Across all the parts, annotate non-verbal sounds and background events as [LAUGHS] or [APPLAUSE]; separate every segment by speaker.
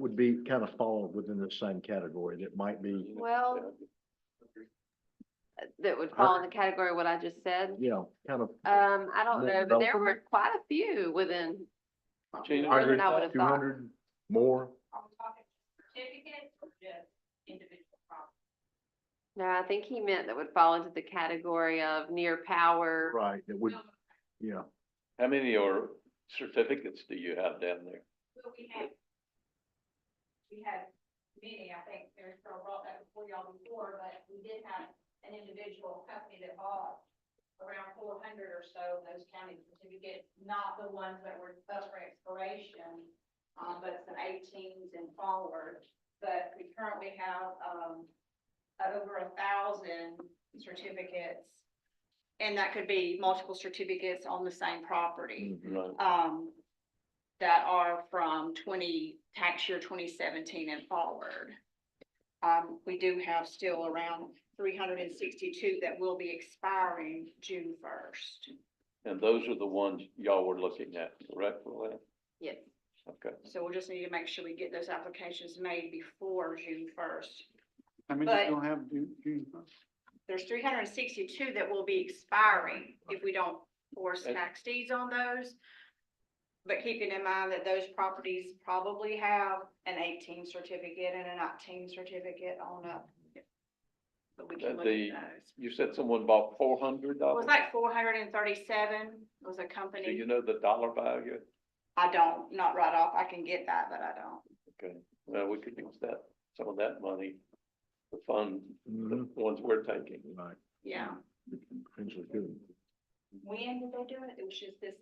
Speaker 1: would be kind of fall within the same category that might be,
Speaker 2: Well, that would fall in the category of what I just said.
Speaker 1: you know, kind of
Speaker 2: Um, I don't know, but there were
Speaker 1: Development.
Speaker 2: quite a few within,
Speaker 3: Change
Speaker 2: more
Speaker 3: it.
Speaker 2: than I would have
Speaker 1: two
Speaker 2: thought.
Speaker 1: hundred more.
Speaker 2: No, I think he meant that would fall into the category of near power.
Speaker 1: Right, that would, yeah,
Speaker 3: How many or certificates do you have down there?
Speaker 4: Well, we had, we had many, I think, there's still brought that before y'all before, but we did have an individual company that bought around four hundred or so of those county certificates, not the ones that were up for expiration, um, but some eighteens and forward. But we currently have, um, over a thousand certificates. And that could be multiple certificates on the same property
Speaker 1: mhm,
Speaker 3: Right.
Speaker 4: um, that are from twenty, tax year twenty seventeen and forward. Um, we do have still around three hundred and sixty-two that will be expiring June first.
Speaker 3: And those are the ones y'all were looking at, correct, Luann?
Speaker 2: Yes.
Speaker 3: Okay.
Speaker 4: So we'll just need to make sure we get those applications made before June first.
Speaker 5: I mean,
Speaker 4: But-
Speaker 5: you don't have June, June first.
Speaker 4: There's three hundred and sixty-two that will be expiring if we don't force
Speaker 3: Okay.
Speaker 4: tax deeds on those. But keeping in mind that those properties probably have an eighteen certificate and a nineteen certificate on up. But we can
Speaker 3: Uh,
Speaker 4: look at
Speaker 3: the-
Speaker 4: those.
Speaker 3: You said someone bought four hundred
Speaker 4: It was
Speaker 3: dollars?
Speaker 4: like four hundred and thirty-seven was a
Speaker 3: Do you
Speaker 4: company.
Speaker 3: know the dollar value?
Speaker 4: I don't, not right off. I can get that, but I don't.
Speaker 3: Okay, well, we could use that, some of that money to fund the
Speaker 1: mhm,
Speaker 3: ones we're taking.
Speaker 1: Right,
Speaker 4: Yeah.
Speaker 1: potentially could.
Speaker 4: When did they do it? It was just this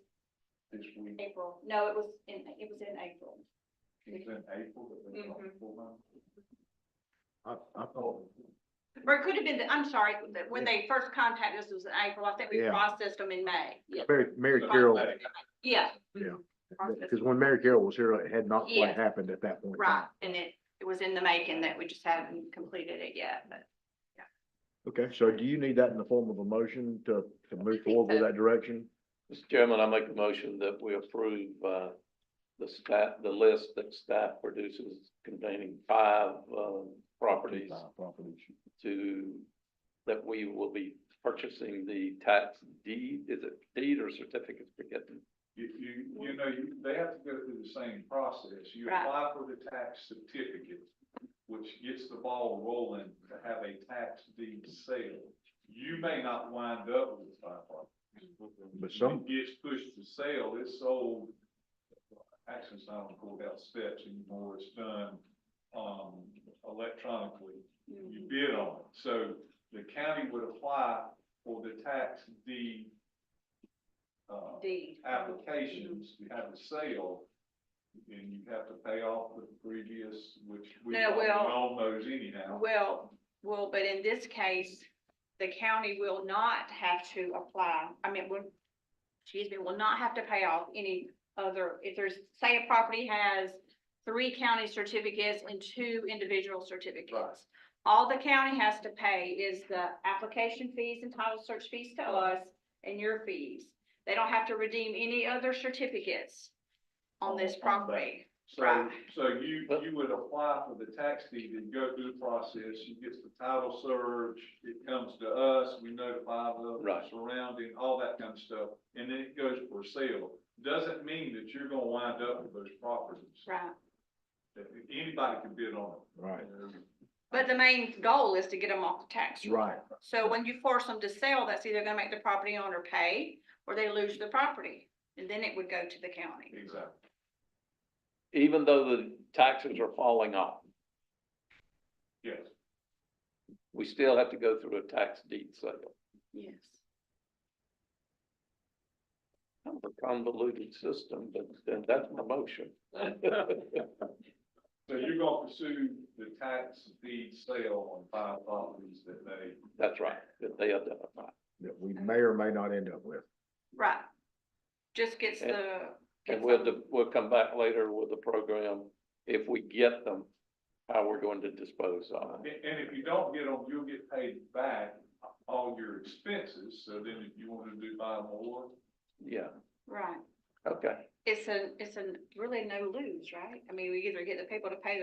Speaker 3: This week.
Speaker 4: April. No, it was in, it was in April.
Speaker 3: It's in April, but
Speaker 4: it's
Speaker 2: Mm-hmm.
Speaker 4: not Mhm.
Speaker 1: I, I thought,
Speaker 4: Or it could have been, the- I'm sorry, that when they first contacted us was in April, I think we
Speaker 1: Yeah.
Speaker 4: processed them in May. Yeah.
Speaker 1: Mary, Mary Carroll,
Speaker 4: Yeah.
Speaker 1: Yeah.
Speaker 4: Processed
Speaker 1: because when Mary Carroll was here, it had not quite
Speaker 4: Yes.
Speaker 1: happened at that point. in
Speaker 4: Right,
Speaker 1: time.
Speaker 4: and it, it was in the making that we just haven't completed it yet, but
Speaker 1: Okay, so do you need that in the form of a motion to, to move
Speaker 2: think
Speaker 1: forward with
Speaker 2: so.
Speaker 1: that direction?
Speaker 3: Mr. Chairman, I make a motion that we approve, uh, the staff, the list that staff produces containing five, um, properties
Speaker 1: Uh, Properties.
Speaker 3: to, that we will be purchasing the tax deed, is it deed or certificates for getting?
Speaker 6: You, you, you know, you, they have to go through the same process. You
Speaker 4: Right.
Speaker 6: apply for the tax certificate, which gets the ball rolling to have a tax deed sale. You may not wind up with five properties.
Speaker 1: But some-
Speaker 6: It Gets pushed to sale, it's sold, actually, it's not on courthouse steps anymore, it's done, um, electronically. You bid on it, so the county would apply for the tax deed, uh,
Speaker 4: deed.
Speaker 6: applications, you have a sale, and you have to pay off the previous, which we
Speaker 4: No,
Speaker 6: we
Speaker 4: well-
Speaker 6: all knows anyhow.
Speaker 4: Well, well, but in this case, the county will not have to apply, I mean, will, excuse me, will not have to pay off any other, if there's, say a property has three county certificates and two individual certificates. All the county has to pay is the application fees and title search fees to us and your fees. They don't have to redeem any other certificates on this
Speaker 6: On- on that.
Speaker 4: property.
Speaker 6: So,
Speaker 4: right.
Speaker 6: so you, you would apply for the tax deed and go through the process, you get the title search, it comes to us, we notify the
Speaker 3: Right.
Speaker 6: surrounding, all that kind of stuff, and then it goes for sale. Doesn't mean that you're gonna wind up with those properties.
Speaker 4: Right.
Speaker 6: Anybody can bid on
Speaker 1: Right,
Speaker 6: it.
Speaker 4: But the main goal is to get them off the tax roll.
Speaker 1: right,
Speaker 4: So when you force them to sell, that's either gonna make the property owner pay or they lose the property. And then it would go to the county.
Speaker 6: Exactly.
Speaker 3: Even though the taxes are falling off,
Speaker 6: Yes.
Speaker 3: we still have to go through a tax deed sale.
Speaker 4: Yes.
Speaker 3: Kind of a convoluted system, but then that's my motion. [LAUGHS]
Speaker 6: So you're gonna pursue the tax deed sale on five properties that they,
Speaker 3: That's right, that they identify.
Speaker 1: that we may or may not end up with.
Speaker 4: Right. Just gets the.
Speaker 3: And
Speaker 4: gets
Speaker 3: we'll,
Speaker 4: them-
Speaker 3: de- we'll come back later with the program, if we get them, how we're going to dispose of
Speaker 6: and,
Speaker 3: them.
Speaker 6: and if you don't get them, you'll get paid back all your expenses, so then if you wanna do buy more,
Speaker 3: Yeah,
Speaker 4: Right.
Speaker 3: okay.
Speaker 4: It's a, it's a really no lose, right? I mean, we either get the people to pay